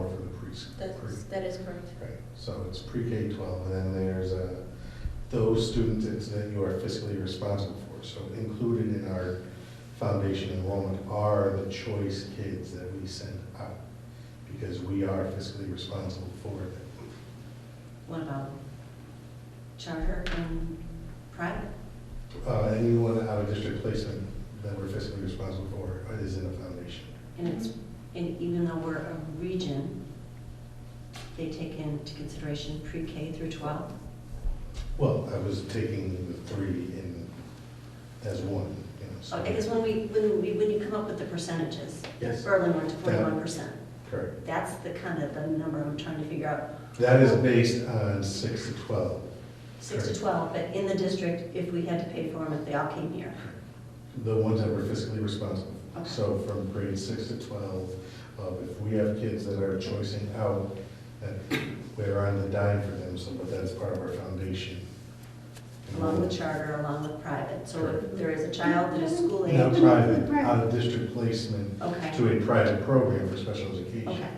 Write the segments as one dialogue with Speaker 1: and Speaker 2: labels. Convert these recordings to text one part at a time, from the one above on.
Speaker 1: preschool.
Speaker 2: That's, that is correct.
Speaker 1: Right, so it's pre-K twelve, and then there's uh those students it's that you are fiscally responsible for. So included in our foundation enrollment are the choice kids that we send out, because we are fiscally responsible for them.
Speaker 3: What about charter and private?
Speaker 1: Uh, anyone out of district placement that we're fiscally responsible for is in the foundation.
Speaker 3: And it's,
Speaker 1: Mm-hmm.
Speaker 3: and even though we're a region, they take into consideration pre-K through 12?
Speaker 1: Well, I was taking the three in, as one, you know, so.
Speaker 3: So I guess when we, when we, when you come up with the percentages,
Speaker 1: Yes,
Speaker 3: Berlin went to 41%.
Speaker 1: correct.
Speaker 3: That's the kind of the number I'm trying to figure out.
Speaker 1: That is based on six to twelve.
Speaker 3: Six to
Speaker 1: Correct.
Speaker 3: 12, but in the district, if we had to pay for them, if they all came here.
Speaker 1: The ones that we're fiscally responsible.
Speaker 3: Okay.
Speaker 1: So from grade six to twelve, uh, if we have kids that are choicing out, that we're on the dime for them, so, but that's part of our foundation.
Speaker 3: Along with charter, along with private. So if
Speaker 1: Correct.
Speaker 3: there is a child that is school
Speaker 1: Now,
Speaker 3: age,
Speaker 1: private, out of district placement
Speaker 3: okay,
Speaker 1: to a private program for special education.
Speaker 3: okay.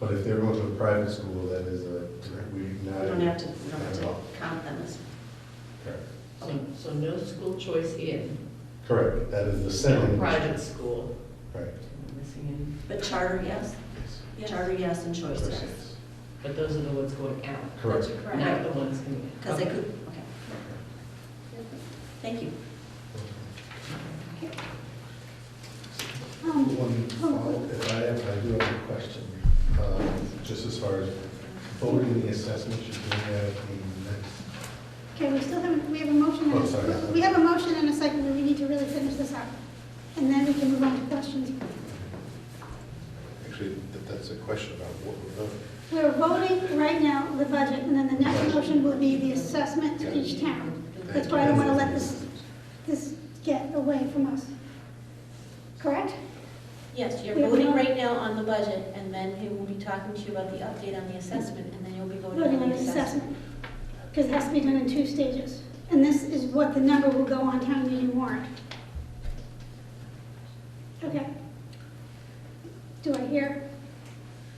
Speaker 1: But if they're going to a private school, that is a, we
Speaker 3: We
Speaker 1: not.
Speaker 3: don't have to, we don't
Speaker 1: not
Speaker 3: have
Speaker 1: at
Speaker 3: to
Speaker 1: all.
Speaker 3: count them as,
Speaker 1: Correct.
Speaker 4: So, so no school choice in,
Speaker 1: Correct, that is the
Speaker 4: no
Speaker 1: same.
Speaker 4: private school.
Speaker 1: Right.
Speaker 4: Am I Missing
Speaker 3: but charter, yes?
Speaker 1: Yes.
Speaker 3: Charter, yes, and choice, yes.
Speaker 1: Choices.
Speaker 4: any, but those are the ones going out,
Speaker 1: Correct.
Speaker 4: not the ones coming in.
Speaker 3: Because they could, okay, thank you.
Speaker 5: Um,
Speaker 1: One, follow- if I have, I do have a question, um, just as far as voting the assessment, should be at the next.
Speaker 5: Okay, we still have, we have a motion,
Speaker 1: Oh, sorry.
Speaker 5: and- we have a motion and a second, but we need to really finish this up. And then we can move on to questions.
Speaker 6: Actually, th- that's a question about what we're voting.
Speaker 5: We're voting right now the budget, and then the next motion will be the assessment to each town. That's why I don't want to let this, this get away from us. Correct?
Speaker 2: Yes, you're
Speaker 5: We have
Speaker 2: voting
Speaker 5: not-
Speaker 2: right now on the budget, and then he will be talking to you about the update on the assessment, and then you'll be
Speaker 5: Voting on the
Speaker 2: assessment.
Speaker 5: assessment, because it has to be done in two stages. And this is what the number will go on town meeting warrant. Okay. Do I hear?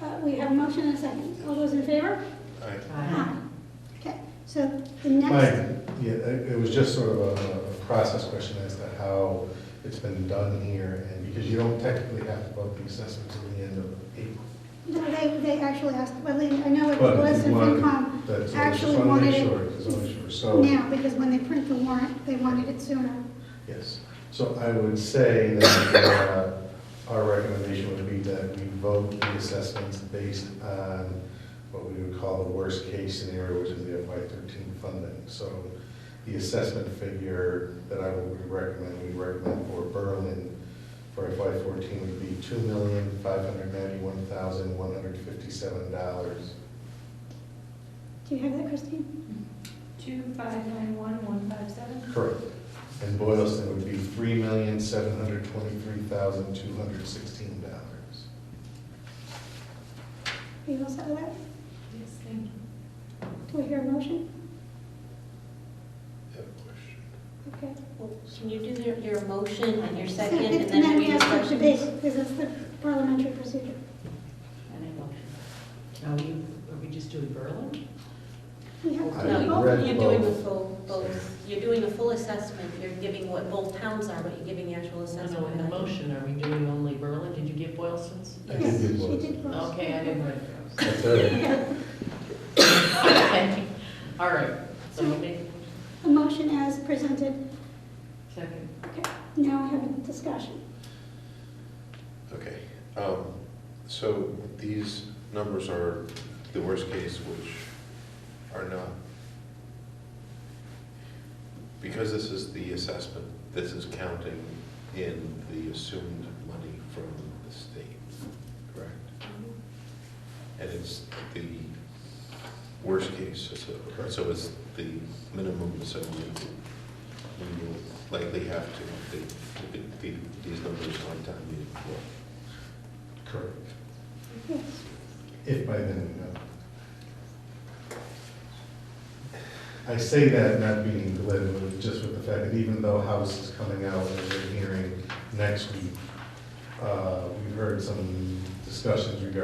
Speaker 5: uh, We have a motion and a second. All those in favor?
Speaker 6: I-
Speaker 4: Aye.
Speaker 5: Okay, so the next,
Speaker 1: Mine, yeah, it it was just sort of a a process question as to how it's been done here, and because you don't technically have to vote the assessment till the end of April.
Speaker 5: no, they, they actually asked, well, they- I know it
Speaker 1: But
Speaker 5: was
Speaker 1: if
Speaker 5: in
Speaker 1: you want-
Speaker 5: FinCom
Speaker 1: That's, I just
Speaker 5: actually
Speaker 1: want to
Speaker 5: wanted
Speaker 1: make sure,
Speaker 5: it
Speaker 1: just wanna make sure, so.
Speaker 5: now, because when they print the warrant, they wanted it sooner.
Speaker 1: Yes, so I would say that uh, our recommendation would be that we vote the assessments based on what we would call the worst-case scenario, which is the FY thirteen funding. So the assessment figure that I would recommend, we recommend for Berlin for FY fourteen would be two million, five hundred ninety-one thousand, one hundred fifty-seven dollars.
Speaker 5: Do you have that, Christine?
Speaker 7: Two five nine one one five seven.
Speaker 1: Correct. And Boylston would be three million, seven hundred twenty-three thousand, two hundred sixteen dollars.
Speaker 5: Are you all set with that?
Speaker 7: Yes, thank you.
Speaker 5: Do we hear a motion?
Speaker 6: have a question.
Speaker 5: Okay.
Speaker 2: Well, Can you do your, your motion and your second,
Speaker 5: And
Speaker 2: and then
Speaker 5: we
Speaker 2: your
Speaker 5: ask for
Speaker 2: questions?
Speaker 5: debate, because that's the parliamentary procedure.
Speaker 4: And I motion. Now, we, are we just doing Berlin?
Speaker 5: We have to
Speaker 1: I
Speaker 5: do
Speaker 2: No,
Speaker 5: both.
Speaker 2: you're
Speaker 1: read
Speaker 2: doing the
Speaker 1: both.
Speaker 2: full, both, you're doing a full assessment, you're giving what both towns are, but you're giving the actual
Speaker 4: No,
Speaker 2: assessment.
Speaker 4: no, in the
Speaker 2: value.
Speaker 4: motion, are we doing only Berlin? Did you get Boylston's?
Speaker 1: I
Speaker 5: Yes,
Speaker 1: did do
Speaker 5: she
Speaker 1: both.
Speaker 5: did both.
Speaker 4: Okay, I didn't write those.
Speaker 1: That's all right.
Speaker 4: Okay, all right. So we make
Speaker 5: A motion as presented.
Speaker 4: second.
Speaker 5: Okay, now we have a discussion.
Speaker 6: Okay, um, so these numbers are the worst case, which are not, because this is the assessment, this is counting in the assumed money from the state, correct? And it's the worst case, so- so it's the minimum, so we we will likely have to update the- the- these numbers on time meeting floor.
Speaker 1: Correct.
Speaker 5: Yes.
Speaker 1: If by then, we know. I say that not being glib, but just with the fact that even though House is coming out with a hearing next week, uh, we've heard some discussions regarding